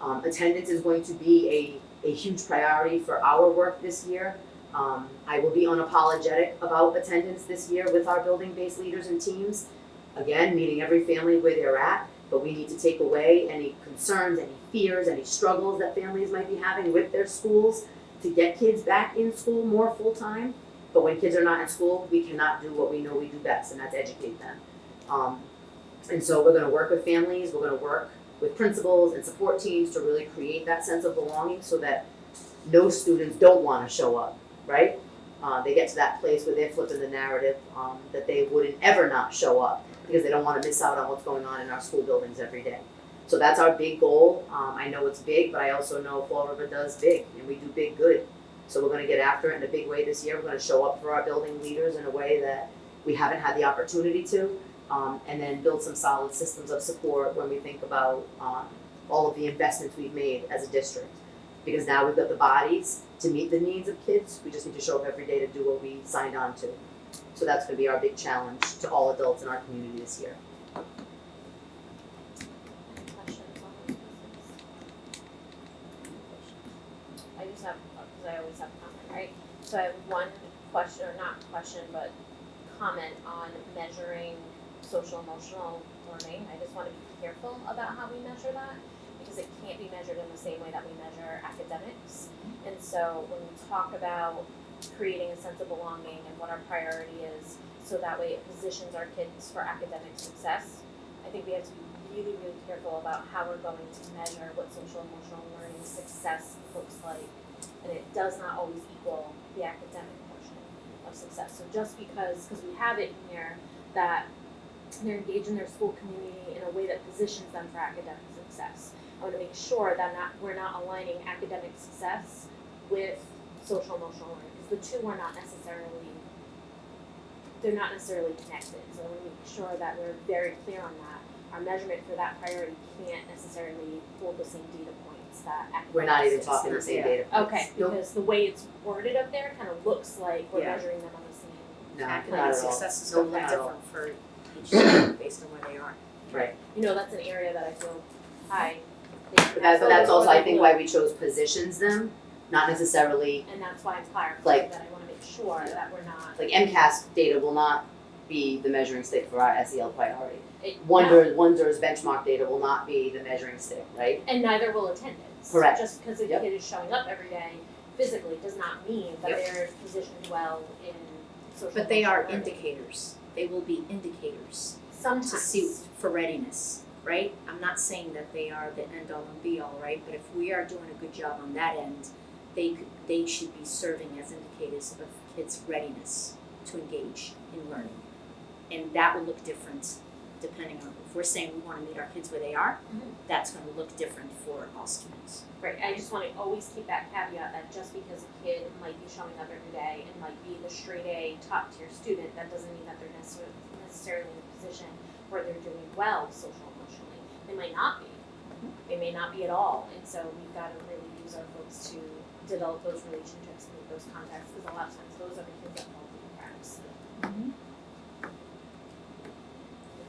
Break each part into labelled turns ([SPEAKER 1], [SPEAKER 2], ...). [SPEAKER 1] Um, attendance is going to be a, a huge priority for our work this year. Um, I will be unapologetic about attendance this year with our building-based leaders and teams. Again, meeting every family where they're at, but we need to take away any concerns, any fears, any struggles that families might be having with their schools to get kids back in school more full-time. But when kids are not in school, we cannot do what we know we do best, and that's educate them. Um, and so we're gonna work with families, we're gonna work with principals and support teams to really create that sense of belonging so that no students don't wanna show up, right? Uh, they get to that place where they're flipping the narrative, um, that they wouldn't ever not show up because they don't wanna miss out on what's going on in our school buildings every day. So that's our big goal. Um, I know it's big, but I also know Fall River does big and we do big good. So we're gonna get after it in a big way this year. We're gonna show up for our building leaders in a way that we haven't had the opportunity to um, and then build some solid systems of support when we think about um, all of the investments we've made as a district. Because now we've got the bodies to meet the needs of kids, we just need to show up every day to do what we signed on to. So that's gonna be our big challenge to all adults in our community this year.
[SPEAKER 2] Any questions on those pieces? I just have, because I always have comment, right? So I have one question, or not question, but comment on measuring social emotional learning. I just want to be careful about how we measure that because it can't be measured in the same way that we measure academics. And so when we talk about creating a sense of belonging and what our priority is, so that way it positions our kids for academic success, I think we have to be really, really careful about how we're going to measure what social emotional learning success looks like. And it does not always equal the academic portion of success. So just because, because we have it in here, that they're engaged in their school community in a way that positions them for academic success. I want to make sure that not, we're not aligning academic success with social emotional learning, because the two are not necessarily they're not necessarily connected. So we make sure that we're very clear on that. Our measurement for that priority can't necessarily hold the same data points that academic
[SPEAKER 1] We're not even
[SPEAKER 2] success-
[SPEAKER 1] talking the same data points.
[SPEAKER 2] Okay,
[SPEAKER 1] Nope.
[SPEAKER 2] because the way it's worded up there kind of looks like we're
[SPEAKER 1] Yeah.
[SPEAKER 2] measuring them on the same.
[SPEAKER 1] No, not
[SPEAKER 2] Academic
[SPEAKER 1] at all.
[SPEAKER 3] Academic success is
[SPEAKER 1] No,
[SPEAKER 3] gonna look
[SPEAKER 1] not at all.
[SPEAKER 3] different for each student based on where they are.
[SPEAKER 1] Right,
[SPEAKER 2] You know, that's an area that I feel high.
[SPEAKER 1] but that's, that's also, I think, why we chose positions them, not necessarily,
[SPEAKER 2] And that's why I'm clarifying
[SPEAKER 1] Like-
[SPEAKER 2] that I want to make sure that we're not.
[SPEAKER 1] like MCAS data will not be the measuring stick for our SEL priority.
[SPEAKER 2] it-
[SPEAKER 1] Wonder, Wonder's benchmark data will not be the measuring stick, right?
[SPEAKER 2] no. And neither will attendance.
[SPEAKER 1] Correct.
[SPEAKER 2] Just because a
[SPEAKER 1] Yep.
[SPEAKER 2] kid is showing up every day physically does not mean that
[SPEAKER 1] Yep.
[SPEAKER 2] they're positioned well in social.
[SPEAKER 3] But they are
[SPEAKER 2] emotional learning.
[SPEAKER 3] indicators, they will be indicators
[SPEAKER 2] Sometimes.
[SPEAKER 3] to see for readiness, right? I'm not saying that they are the end all and be all, right? But if we are doing a good job on that end, they could, they should be serving as indicators of kids' readiness to engage in learning. And that will look different depending on, if we're saying we wanna meet our kids where they are,
[SPEAKER 2] Mhm.
[SPEAKER 3] that's gonna look different for all students.
[SPEAKER 2] Right, I just wanna always keep that caveat that just because a kid might be showing up every day and might be the straight A top tier student, that doesn't mean that they're necessarily necessarily in a position where they're doing well social emotionally. They might not be. They may not be at all, and so we've gotta really use our folks to develop those relationships and make those contacts, because a lot of times those are the kids that fall through the cracks.
[SPEAKER 3] Mm-hmm.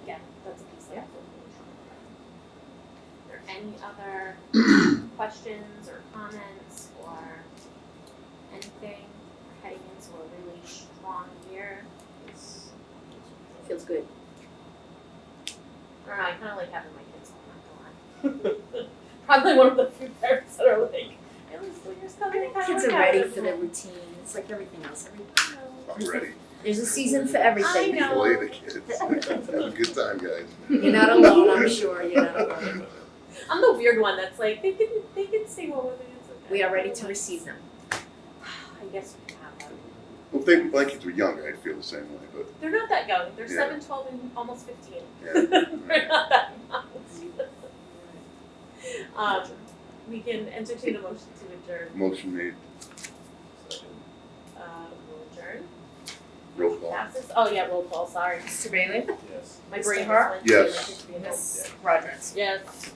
[SPEAKER 2] Again, that's a piece that I feel really strong about. Are there any other questions or comments or anything heading into a really strong year?
[SPEAKER 3] Feels good.
[SPEAKER 2] I don't know, I kinda like having my kids home, I'm not gonna lie. Probably one of the few parents that are like, at least when you're still
[SPEAKER 3] I
[SPEAKER 2] gonna
[SPEAKER 3] think
[SPEAKER 2] kinda
[SPEAKER 3] kids
[SPEAKER 2] look
[SPEAKER 3] are
[SPEAKER 2] out
[SPEAKER 3] ready
[SPEAKER 2] for
[SPEAKER 3] for
[SPEAKER 2] them.
[SPEAKER 3] their routine, it's like everything else, every,
[SPEAKER 4] I'm ready.
[SPEAKER 3] there's a season for everything.
[SPEAKER 2] I know.
[SPEAKER 4] Play the kids. Have a good time, guys.
[SPEAKER 3] You're not alone, I'm sure, you're not alone.
[SPEAKER 2] I'm the weird one that's like, they can, they can stay home with me, it's okay.
[SPEAKER 3] We are ready to receive them.
[SPEAKER 2] I guess we can have them.
[SPEAKER 4] Well, if they, my kids were younger, I'd feel the same way, but
[SPEAKER 2] They're not that young, they're
[SPEAKER 4] Yeah.
[SPEAKER 2] seven, twelve, and almost fifteen.
[SPEAKER 4] yeah.
[SPEAKER 2] They're not that young. Um, we can entertain a motion to adjourn,
[SPEAKER 4] Motion made,
[SPEAKER 2] uh, we'll adjourn.
[SPEAKER 4] roll call.
[SPEAKER 2] Passes, oh yeah, roll call, sorry.
[SPEAKER 5] Mr. Bailey?
[SPEAKER 6] Yes.
[SPEAKER 5] Mr. Hart?
[SPEAKER 2] just went to,
[SPEAKER 4] Yes.
[SPEAKER 2] like, it's been-
[SPEAKER 5] Ms. Rogers?
[SPEAKER 2] Yes.